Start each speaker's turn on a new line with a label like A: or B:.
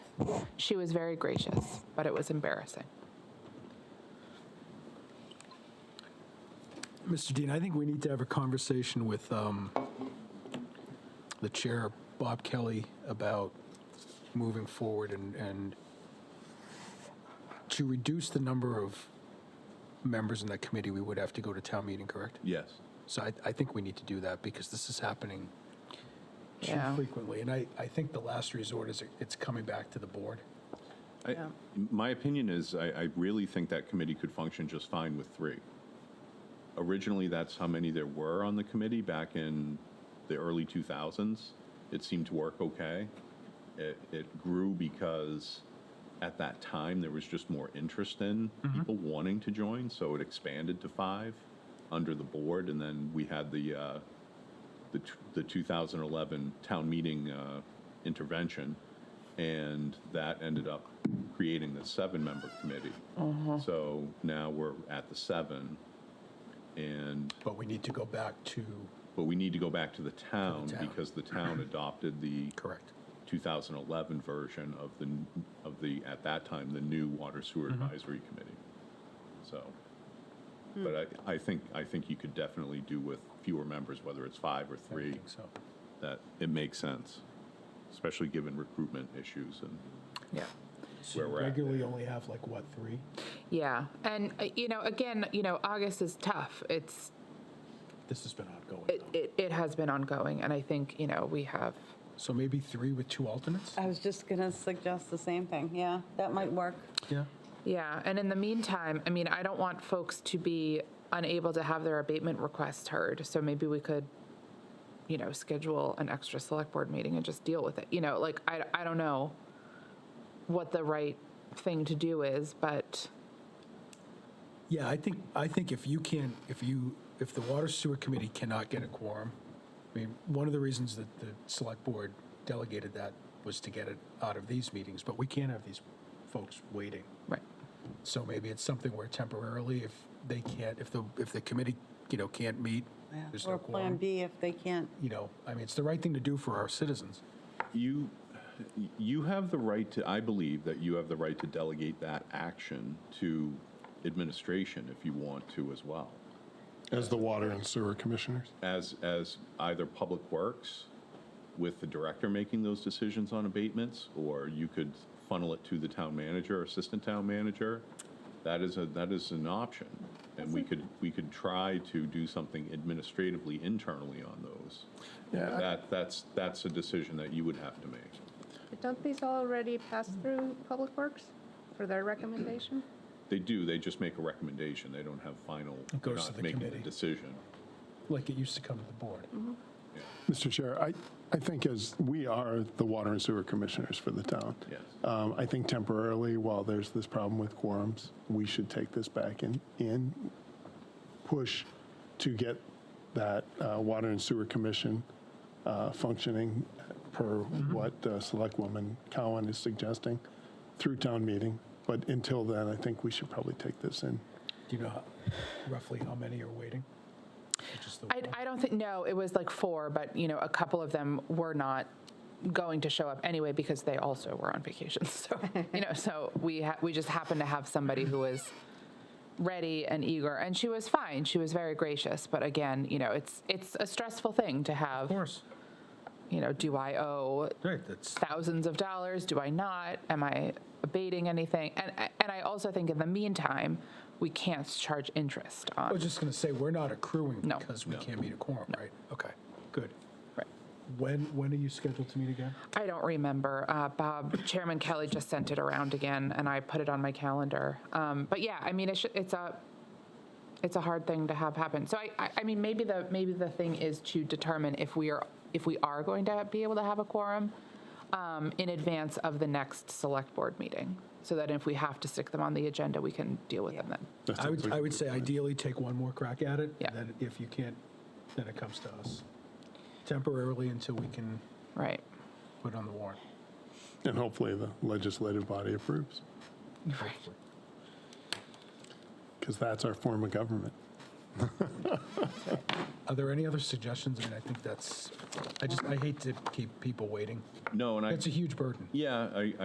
A: She was very gracious, but it was embarrassing.
B: Mr. Dean, I think we need to have a conversation with um, the chair, Bob Kelly, about moving forward and, and to reduce the number of members in that committee, we would have to go to town meeting, correct?
C: Yes.
B: So I, I think we need to do that because this is happening too
A: Yeah.
B: frequently. And I, I think the last resort is it's coming back to the board.
C: I-
A: Yeah.
C: My opinion is, I, I really think that committee could function just fine with three. Originally, that's how many there were on the committee back in the early 2000s. It seemed to work okay. It, it grew because at that time, there was just more interest in people wanting to join, so it expanded to five under the board, and then we had the, uh, the, t- the 2011 town meeting uh, intervention, and that ended up creating the seven-member committee. So now we're at the seven, and,
B: But we need to go back to,
C: but we need to go back to the town,
B: town.
C: because the town adopted the
B: correct.
C: 2011 version of the, n- of the, at that time, the new Water Sewer Advisory Committee. So, but I, I think, I think you could definitely do with fewer members, whether it's five or
B: I
C: three.
B: think so.
C: that it makes sense, especially given recruitment issues and
A: Yeah.
C: where we're at.
B: Regularly only have like, what, three?
A: Yeah. And, uh, you know, again, you know, August is tough. It's,
B: This has been ongoing.
A: it, it, it has been ongoing. And I think, you know, we have,
B: So maybe three with two alternates?
D: I was just gonna suggest the same thing. Yeah, that might work.
B: Yeah.
A: yeah. And in the meantime, I mean, I don't want folks to be unable to have their abatement requests heard. So maybe we could, you know, schedule an extra select board meeting and just deal with it. You know, like, I, I don't know what the right thing to do is, but
B: Yeah, I think, I think if you can, if you, if the Water Sewer Committee cannot get a quorum, I mean, one of the reasons that the Select Board delegated that was to get it out of these meetings, but we can't have these folks waiting.
A: right.
B: So maybe it's something where temporarily, if they can't, if the, if the committee, you know, can't meet, there's no
D: Or Plan
B: quorum.
D: B if they can't.
B: You know, I mean, it's the right thing to do for our citizens.
C: You, you have the right to, I believe that you have the right to delegate that action to administration if you want to as well.
E: As the water and sewer commissioners?
C: As, as either Public Works with the director making those decisions on abatements, or you could funnel it to the town manager, or assistant town manager. That is a, that is an option. And we could, we could try to do something administratively internally on those.
E: Yeah, I-
C: That, that's, that's a decision that you would have to make.
F: But Don't these already pass through Public Works for their recommendation?
C: They do, they just make a recommendation, they don't have final, they're
B: goes to
C: not
B: the
C: making a
B: committee.
C: decision.
B: like it used to come to the board.
E: Mr. Chair, I, I think as, we are the water and sewer commissioners for the town.
C: Yes.
E: Um, I think temporarily, while there's this problem with quorums, we should take this back and, and push to get that uh, water and sewer commission uh, functioning per
B: Mm-hmm.
E: what uh, Selectwoman Cowan is suggesting through town meeting. But until then, I think we should probably take this in.
B: Do you know how- roughly how many are waiting? Just the
A: I,
B: one.
A: I don't think, no, it was like four, but, you know, a couple of them were not going to show up anyway because they also were on vacation. So, you know, so we, ha- we just happened to have somebody who was ready and eager and she was fine. She was very gracious. But again, you know, it's, it's a stressful thing to
B: Of
A: have,
B: course,
A: you know, do I owe
B: right, that's,
A: thousands of dollars? Do I not? Am I abating anything? And, and I also think in the meantime, we can't charge interest
B: I
A: on,
B: was just going to say, we're not accruing
A: No.
B: because we can't meet a quorum, right? Okay, good.
A: right.
B: When, when are you scheduled to meet again?
A: I don't remember. Uh, Bob, Chairman Kelly just sent it around again, and I put it on my calendar. Um, but yeah, I mean, it's, it's a it's a hard thing to have happen. So I, I, I mean, maybe the maybe the thing is to determine if we are if we are going to be able to have a quorum um, in advance of the next select board meeting, so that if we have to stick them on the agenda, we can deal with them then.
E: That's
B: I would,
E: a-
B: I would say ideally take one more crack at it.
A: Yeah.
B: Then if you can't, then it comes to us temporarily until we can
A: Right.
B: put it on the warrant.
E: And hopefully the legislative body approves,
A: Right.
E: because that's our form of government.
B: Are there any other suggestions? I mean, I think that's, I just, I hate to keep people waiting.
C: No, and I,
B: It's a huge burden.
C: yeah, I,